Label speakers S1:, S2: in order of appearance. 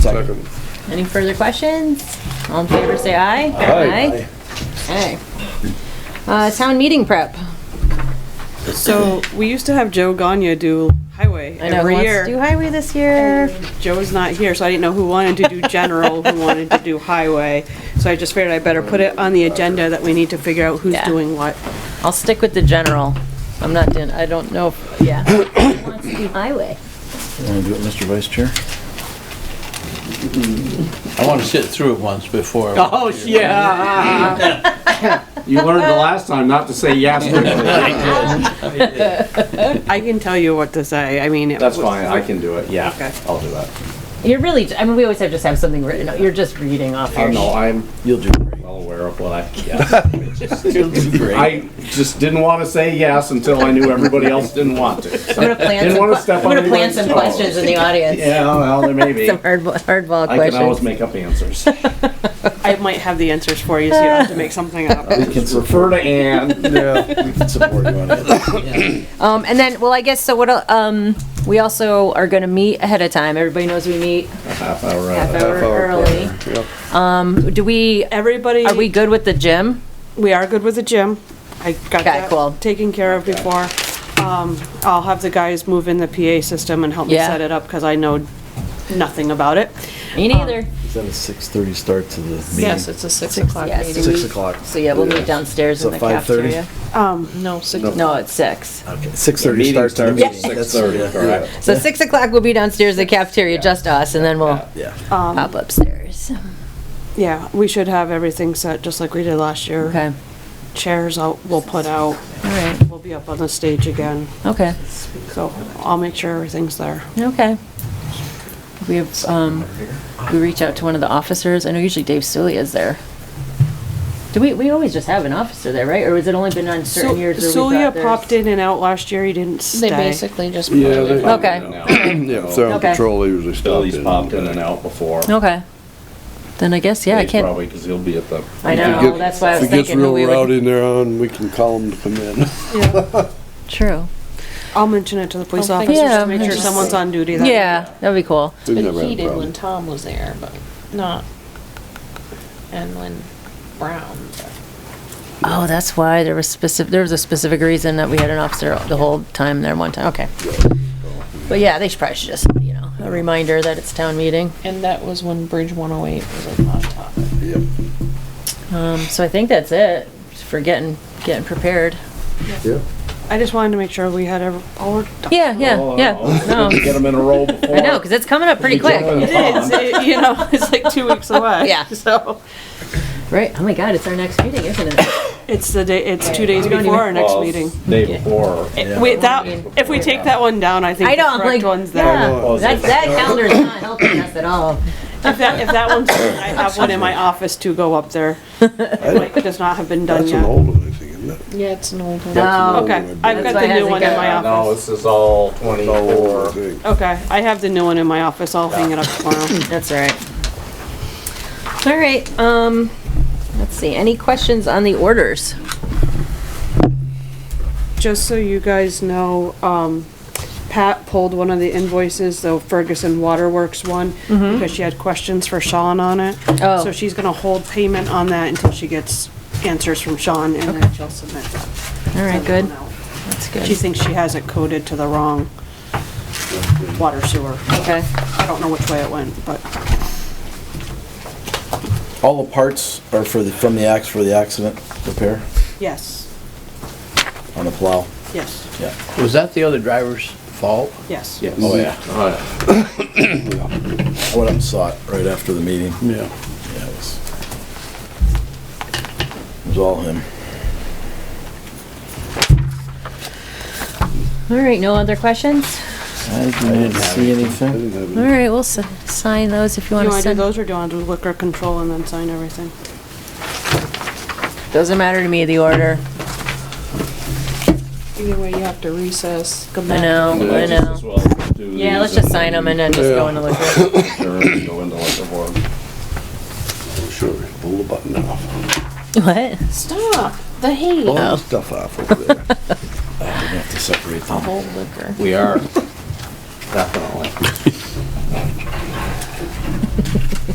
S1: Second.
S2: Any further questions? All in favor, say aye.
S1: Aye.
S2: Aye. Uh, town meeting prep.
S3: So we used to have Joe Gagne do highway
S2: I know, who
S3: every
S2: wants to do
S3: year.
S2: highway this year?
S3: Joe was not here, so I didn't know who wanted to do general, who wanted to do highway. So I just figured I better put it on the agenda that we need to figure out who's
S2: Yeah.
S3: doing what.
S2: I'll stick with the general. I'm not doing, I don't know, if- yeah. Who wants to do highway?
S4: Want to do it, Mr. Vice Chair?
S5: I want to sit through it once before.
S1: Oh, yeah. You learned the last time not to say yes.
S3: I can tell you what to say, I mean. it
S1: That's
S3: was-
S1: fine, I can do it, yeah,
S3: Okay.
S1: I'll do that.
S2: You're really, I mean, we always have, just have something written, out. you're just reading off
S1: I
S2: your.
S1: know, Uh, I'm
S4: You'll do great.
S1: well aware of what I, yeah.
S4: You'll do great.
S1: I just didn't want to say yes until I knew everybody else didn't want to.
S2: I'm gonna
S1: So-
S2: plant
S1: Didn't
S2: some,
S1: wanna
S2: que-
S1: step
S2: I'm
S1: on
S2: gonna plant
S1: anyone's
S2: some
S1: toes.
S2: questions in the audience.
S1: Yeah, well, there may be.
S2: Some hardball, hardball
S1: I can always
S2: questions.
S1: make up answers.
S3: I might have the answers for you, so you don't have to make something up.
S4: Can
S1: Refer to Ann.
S4: Yeah, we can support you on it.
S2: Um, and then, well, I guess, so what, el- um, we also are gonna meet ahead of time. Everybody knows we meet
S1: Half hour uh,
S2: half
S1: out.
S2: hour early. Um, do we,
S3: Everybody,
S2: are we good with the gym?
S3: we are good with the gym. I got
S2: cool.
S3: that taken care of before. Um, I'll have the guys move in the PA system and help me
S2: Yeah.
S3: set it up, because I know nothing about it.
S2: Me
S3: Um,
S2: neither.
S4: Is that a 6:30 start to the meeting?
S6: Yes, it's a six o'clock
S2: Yes.
S6: meeting.
S4: Six o'clock.
S2: So yeah, we'll meet downstairs
S4: So
S2: in the
S4: 5:30?
S2: cafeteria.
S3: Um,
S6: No, six.
S2: No, it's six.
S4: Okay,
S1: Meeting
S4: 6:30 start.
S1: starts at 6:30, correct.
S2: So six o'clock, we'll be downstairs in the cafeteria, just us, and then we'll
S4: Yeah.
S3: Um,
S2: pop upstairs.
S3: Yeah, we should have everything set, just like we did last year.
S2: Okay,
S3: Chairs out, we'll put out,
S2: all right,
S3: we'll be up on the stage again,
S2: okay,
S3: so I'll make sure everything's there.
S2: okay. We have, um, we reach out to one of the officers. I know usually Dave Sulia is there. Do we, we always just have an officer there, right? Or has it only been on certain years? where we've
S3: Sulia
S2: got
S3: popped
S2: theirs?
S3: in and out last year, he didn't
S6: They
S3: stay.
S6: basically just.
S7: Yeah, they-
S2: Okay,
S7: Yeah, sound
S2: Okay.
S7: control, they usually stop
S1: Billy's
S7: in.
S1: popped in and out before.
S2: okay. Then I guess, yeah, I
S1: He's
S2: can't,
S1: Probably because he'll be at the.
S2: I
S7: If it
S2: know,
S7: gets-
S2: that's why I was
S7: If it gets
S2: thinking
S7: real
S2: who we would.
S7: rowdy in there on, we can call them to come in.
S3: Yeah,
S2: True.
S3: I'll mention it to the police
S6: I'll think-
S3: officers
S2: Oh, Yeah,
S3: to make
S2: I
S3: sure
S2: just-
S3: someone's on duty that.
S2: Yeah, that'd be cool.
S7: We've
S6: But
S7: never had a
S6: he did when
S7: problem.
S6: Tom was there, but not, and when Brown. but-
S2: Oh, that's why there was specific, there was a specific reason that we had an officer the whole time there one time, okay. But yeah, they should probably should just, you know, a reminder that it's town meeting.
S6: And that was when Bridge 108 was a hot topic.
S2: Um, so I think that's it for getting, getting prepared.
S3: I just wanted to make sure we had every, all our. ducks-
S2: Yeah,
S7: Oh,
S2: yeah, yeah, no,
S1: Get them in a row before.
S2: I know, cause it's coming up pretty quick.
S3: It is, it- you know, it's like two weeks away.
S2: Yeah.
S3: So,
S2: Right, oh my god, it's our next meeting, isn't it?
S3: it's the day, it's two days before our next meeting.
S1: Day before.
S3: Wait, that, if we take that one down, I think
S2: I
S3: the
S2: know, I'm like,
S3: correct one's there.
S2: yeah, that, that calendar's not helping us at all.
S3: If that, if that one's, I have one in my office to go up there. It does not have been done
S7: That's an
S3: yet.
S7: old one, I think, isn't it?
S6: Yeah, it's an old one.
S2: No,
S3: Okay, I've got
S2: That's why
S3: the
S2: it
S3: new
S2: hasn't
S3: one in
S2: got-
S3: my
S1: No,
S3: office.
S1: this is all twenty-four.
S7: Thing.
S3: Okay, I have the new one in my office, I'll hang it up tomorrow.
S2: that's all right. All right, um, let's see, any questions on the orders?
S3: Just so you guys know, um, Pat pulled one of the invoices, the Ferguson Waterworks one, because she had questions for Sean on it.
S2: Mm-hmm. Oh.
S3: So she's gonna hold payment on that until she gets answers from Sean, and then she'll submit that.
S2: All right, good.
S6: That's
S3: She
S6: good.
S3: thinks she has it coded to the wrong water sewer.
S2: Okay.
S3: I don't know which way it went, but.
S4: All the parts are for the, from the ax, for the accident repair
S3: Yes,
S4: on the plow.
S3: yes,
S4: Yeah.
S5: Was that the other driver's fault?
S3: yes.
S4: Oh, yeah.
S1: Oh, yeah.
S4: I went up and saw it right after the meeting.
S7: Yeah.
S4: Yeah, it was, it was all him.
S2: All right, no other questions?
S4: I didn't see
S7: I
S4: anything.
S7: didn't have
S2: All
S7: any.
S2: right, we'll s- sign those if you
S3: Do
S2: want
S3: you
S2: to
S3: wanna do
S2: send.
S3: those, or do you wanna do liquor control and then sign everything?
S2: Doesn't matter to me, the order.
S6: Either way, you have to recess, come
S2: I
S6: back.
S2: know, I
S1: Just as
S2: know.
S1: well do
S2: Yeah, let's
S1: these
S2: just sign them and then just go
S7: Yeah.
S2: into liquor.
S1: Sure, go into liquor board.
S7: Oh, Sure, pull the button off.
S2: What?
S6: Stop, the heat.
S7: Pull
S2: Oh.
S7: the stuff off over there.
S4: We have to separate them.
S6: Cold liquor.
S1: We are, definitely.